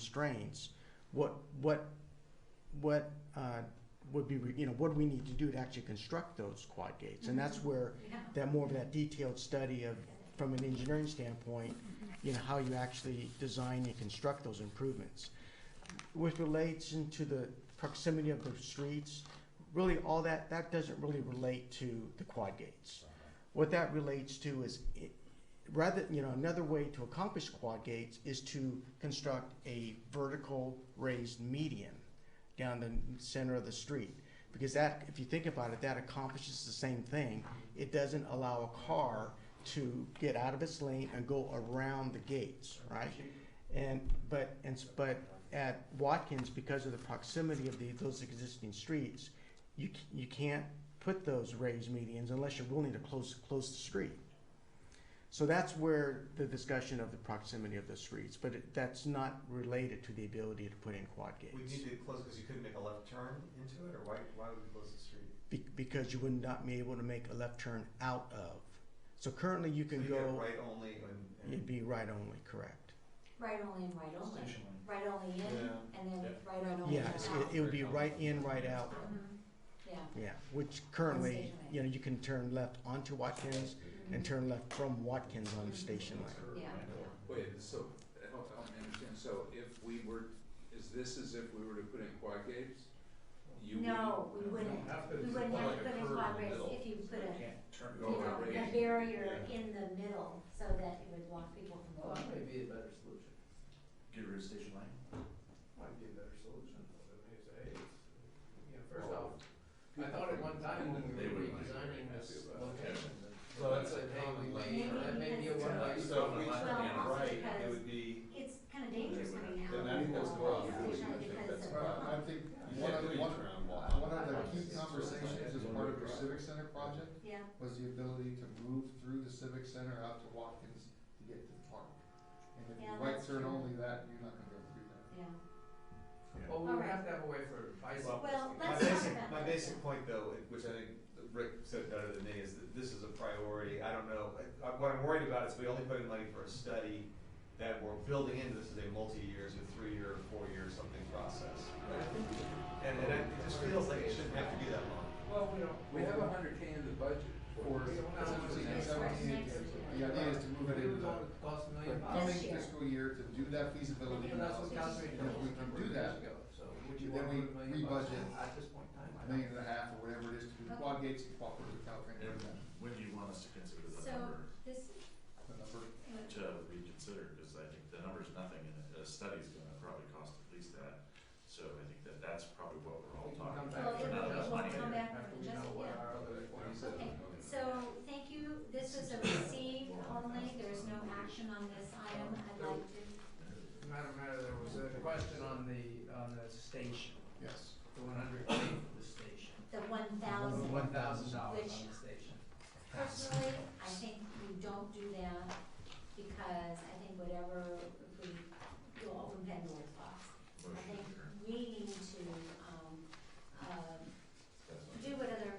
constraints, what, what, what, uh, would be, re- you know, what do we need to do to actually construct those quad gates? And that's where, that more of that detailed study of, from an engineering standpoint, you know, how you actually design and construct those improvements. Which relates into the proximity of the streets, really all that, that doesn't really relate to the quad gates. What that relates to is, it- rather, you know, another way to accomplish quad gates is to construct a vertical raised median down the center of the street. Because that, if you think about it, that accomplishes the same thing. It doesn't allow a car to get out of its lane and go around the gates, right? And, but, and, s- but at Watkins, because of the proximity of the, those existing streets, you, c- you can't put those raised medians unless you're willing to close, close the street. So that's where the discussion of the proximity of the streets, but it- that's not related to the ability to put in quad gates. We need to close because you couldn't make a left turn into it, or why, why would we close the street? be- because you would not be able to make a left turn out of. So currently you So can get go, right only and. it'd be right only, correct? Right only and right only. Right only in Yeah. and then Yeah. right only Yeah, out. it's- it, it would be right in, right out, Mhm. Yeah. yeah, which currently, you know, you can turn left onto Watkins and turn left from Watkins on the station line. Yeah. Wait, so, help, help me understand, so if we were, is this as if we were to put in quad gates? You wouldn't? No, we wouldn't, we wouldn't have to put in progress if you put a, Turn, you go know, around a radius? barrier in the middle so that it would block people from Well, going. that may be a better solution. Get rid of station line? Might be a better solution, but I mean, it's, hey, it's, you know, first off, I thought at one time when we They were wouldn't like it. redesigning this location, So that that's like that's a common Maybe lane, or that may be a because- one way. So if we Well, turn also right, it because would be, it's kind of dangerous coming out. then I think that's of wrong. the station because of- Well, I think you one can't do of, a one, turn while. one of the key conversations as part of your civic center project Yeah, was the ability to move through the civic center out to Watkins to get to the park. And if you Yeah, right that's turn true. only that, you're not gonna go through that. yeah. Well, we would have to have a way for bicycles. Well, My let's talk basic, about my that. basic point though, it- which I think Rick said better than me, is that this is a priority, I don't know, I- I- what I'm worried about is we only put in money for a study that we're building into this as a multi-year, so three-year, four-year something process, But I right? think, And, and it it just feels like it shouldn't have to be that long. well, we don't, We have a hundred K in the budget For, for. We don't have for to 16, make 17, next the year. idea is to we move it into would the only cost a million the dollars. coming This year. fiscal year to do that feasibility And that's what analysis. Catherine And if we can do that, ago, so would you then want to we put a million bucks rebudget at this point in time? I a don't- million and a half or whatever it is to do quad gates and cooperate with Caltrain, and that, When do you want us to consider the So- number This, the number. to reconsider? Because I think the number's nothing and a- a study's gonna probably cost at least that. So I think that that's probably what we're all We can talking about. come back Well, it for will- an it will adjustment come later back after for we know adjustment, what yeah. our other forms are. okay, so thank you, this was a receive only, there is no action on this item, I'd like to Madam Mayor, there was a question on the, on the station, Yes. the one hundred K for the station. the one The thousand. one thousand dollars Which- on the station. Personally, I think we don't do that because I think whatever, if we, you'll open Pandora's box. I Motion think to adjourn. we need to, um, uh, do what other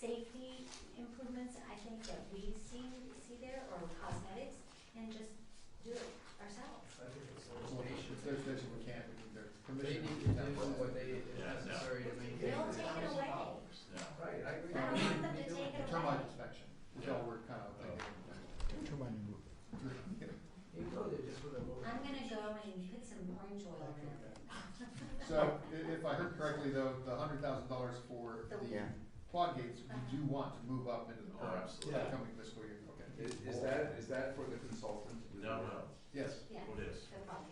safety improvements I think that we see, see there, or cosmetics, and just do it ourselves. I think it's It's the station. their station, we can't, we need their They permission. need to to do do that. what they, is necessary to maintain. They'll the take it away. house. Yeah. Right, I agree. I don't want them to take it away. Termite inspection, which all we're kind of thinking. Termite removal. You go there just with a little. I'm gonna go and put some orange oil in it. So, i- if I heard correctly though, the hundred thousand dollars for The- the Yeah. quad gates, we do want to move up into the Oh, current, absolutely. coming fiscal year, okay? Is, is that, is that for the consultant? No, no, Yes. Yeah, it is. the fog um, uh, um, Oh, uh, uh, um, uh,